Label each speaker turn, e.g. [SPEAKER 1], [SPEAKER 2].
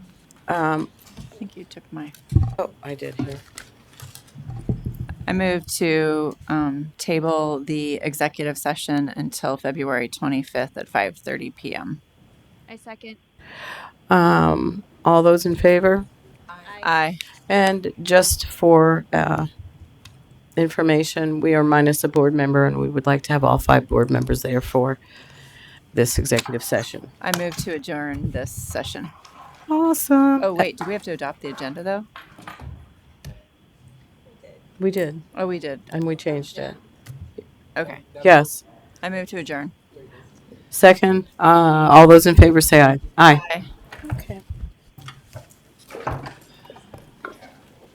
[SPEAKER 1] I think you took my.
[SPEAKER 2] Oh, I did here.
[SPEAKER 1] I move to um, table the executive session until February 25th at 5:30 PM.
[SPEAKER 3] I second.
[SPEAKER 2] Um, all those in favor?
[SPEAKER 1] Aye.
[SPEAKER 2] And just for uh, information, we are minus a board member, and we would like to have all five board members there for this executive session.
[SPEAKER 1] I move to adjourn this session.
[SPEAKER 2] Awesome.
[SPEAKER 1] Oh, wait, do we have to adopt the agenda, though?
[SPEAKER 2] We did,
[SPEAKER 1] Oh, we did.
[SPEAKER 2] and we changed it.
[SPEAKER 1] Okay.
[SPEAKER 2] Yes.
[SPEAKER 1] I move to adjourn.
[SPEAKER 2] Second, uh, all those in favor say aye. Aye.
[SPEAKER 1] Aye.